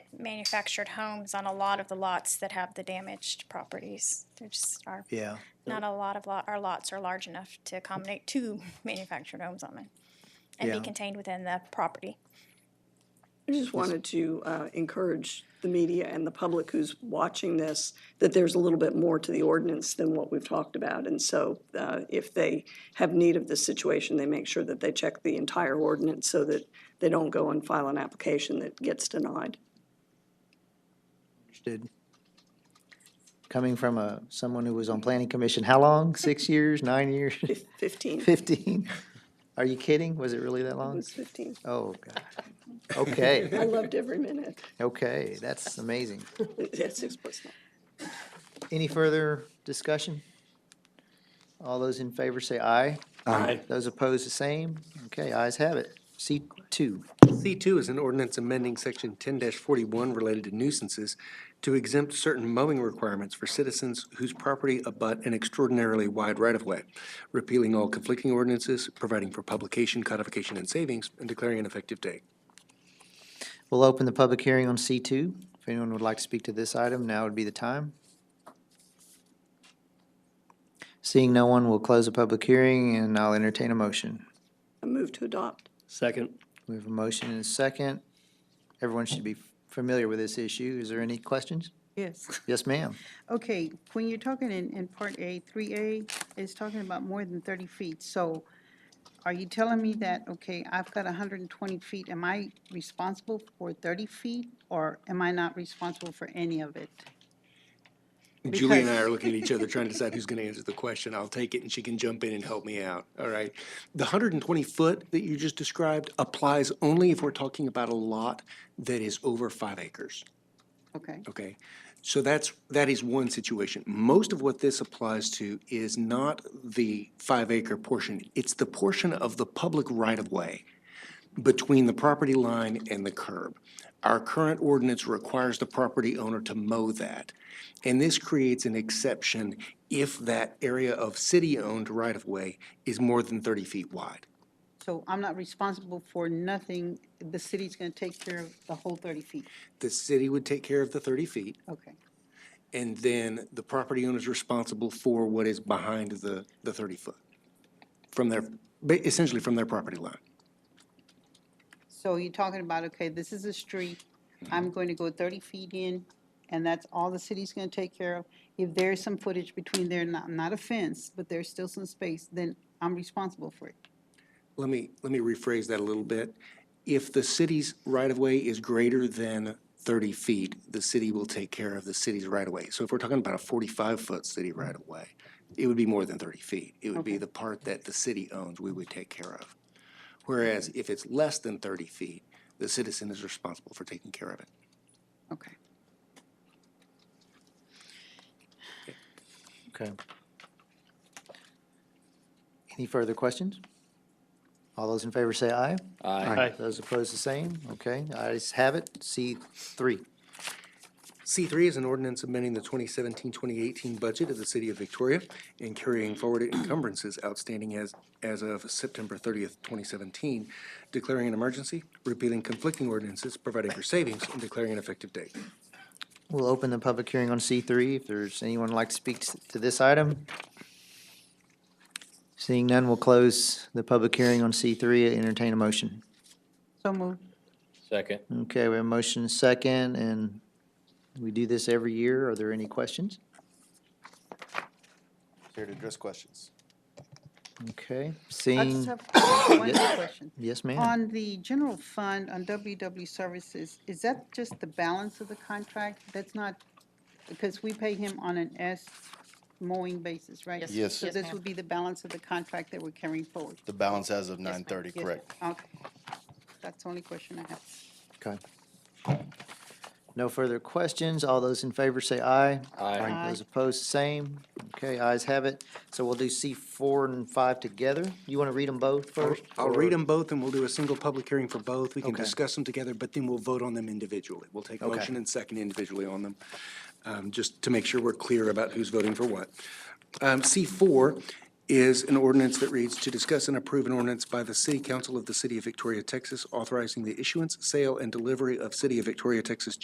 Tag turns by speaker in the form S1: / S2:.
S1: manufactured homes on a lot of the lots that have the damaged properties. There just are
S2: Yeah.
S1: not a lot of lot, our lots are large enough to accommodate two manufactured homes on it and be
S2: Yeah.
S1: contained within the property.
S3: I just wanted to uh, encourage the media and the public who's watching this, that there's a little bit more to the ordinance than what we've talked about. And so uh, if they have need of this situation, they make sure that they check the entire ordinance so that they don't go and file an application that gets denied.
S2: Understood. Coming from a, someone who was on planning commission, how long? Six years, nine years,
S3: Fif- Fifteen, it
S2: fifteen? Are you kidding? Was it really that long?
S3: was fifteen.
S2: Oh, God. Okay,
S3: I loved every minute.
S2: okay, that's amazing.
S3: Yes, six plus nine.
S2: Any further discussion? All those in favor say aye.
S4: Aye.
S2: Those opposed, the same. Okay, ayes have it. C two.
S4: C2 is an ordinance amending Section 10-41 related to nuisances to exempt certain mowing requirements for citizens whose property abut an extraordinarily wide right-of-way, repealing all conflicting ordinances, providing for publication, codification, and savings, and declaring an effective date.
S2: We'll open the public hearing on C two. If anyone would like to speak to this item, now would be the time. Seeing no one, we'll close the public hearing and I'll entertain a motion.
S3: I move to adopt.
S5: Second.
S2: We have a motion and a second. Everyone should be familiar with this issue. Is there any questions?
S6: Yes.
S2: Yes, ma'am.
S6: Okay, when you're talking in, in part A, three A, it's talking about more than thirty feet. So are you telling me that, okay, I've got hundred and twenty feet, am I responsible for thirty feet? Or am I not responsible for any of it?
S4: Julie and I are looking at each other, trying to decide who's going to answer the question. I'll take it, and she can jump in and help me out, all right? The 120-foot that you just described applies only if we're talking about a lot that is over five acres.
S6: Okay,
S4: Okay, so that's, that is one situation. Most of what this applies to is not the five acre portion. It's the portion of the public right of way between the property line and the curb. Our current ordinance requires the property owner to mow that. And this creates an exception if that area of city-owned right of way is more than thirty feet wide.
S6: so I'm not responsible for nothing, the city's gonna take care of the whole thirty feet,
S4: The city would take care of the thirty feet.
S6: okay.
S4: And then the property owner is responsible for what is behind the, the 30-foot from their, ba- essentially from their property line.
S6: So you're talking about, okay, this is a street, I'm going to go thirty feet in, and that's all the city's gonna take care of. If there's some footage between there, not, not a fence, but there's still some space, then I'm responsible for it.
S4: Let me, let me rephrase that a little bit. If the city's right-of-way is greater than 30 feet, the city will take care of the city's right-of-way. So if we're talking about a 45-foot city right-of-way, it would be more than 30 feet. It would be the part that the city owns, we would take care of. Whereas if it's less than 30 feet, the citizen is responsible for taking care of it.
S6: Okay.
S2: Okay. Any further questions? All those in favor say aye.
S5: Aye.
S2: Those opposed, the same. Okay, ayes have it. C three.
S4: C3 is an ordinance amending the 2017-2018 budget of the City of Victoria and carrying forward encumbrances outstanding as, as of September 30th, 2017, declaring an emergency, repealing conflicting ordinances, providing for savings, and declaring an effective date.
S2: We'll open the public hearing on C three. If there's anyone who'd like to speak s- to this item. Seeing none, we'll close the public hearing on C three. Entertain a motion.
S6: So moved.
S5: Second.
S2: Okay, we have a motion second, and we do this every year. Are there any questions?
S7: Here to address questions.
S2: Okay,
S6: I just
S2: seeing,
S6: have one question.
S2: yes, ma'am.
S6: On the general fund, on WW Services, is that just the balance of the contract? That's not, because we pay him on an S mowing basis, right?
S7: Yes.
S6: So this would be the balance of the contract that we're carrying forward?
S7: The balance as of
S6: Yes, ma'am.
S7: nine thirty,
S6: Yes,
S7: correct?
S6: ma'am. Okay. That's the only question I have.
S2: Okay. No further questions. All those in favor say aye.
S6: Aye.
S2: Those opposed, same. Okay, ayes have it. So we'll do C four and five together. You want to read them both
S4: I'll-
S2: first?
S4: I'll
S2: or-
S4: read them both, and we'll do a single public hearing for both. We can
S2: Okay.
S4: discuss them together, but then we'll vote on them individually. We'll take
S2: Okay.
S4: motion and second individually on them, um, just to make sure we're clear about who's voting for what. Um, C4 is an ordinance that reads, "To discuss and approve an ordinance by the City Council of the City of Victoria, Texas, authorizing the issuance, sale, and delivery of City of Victoria, Texas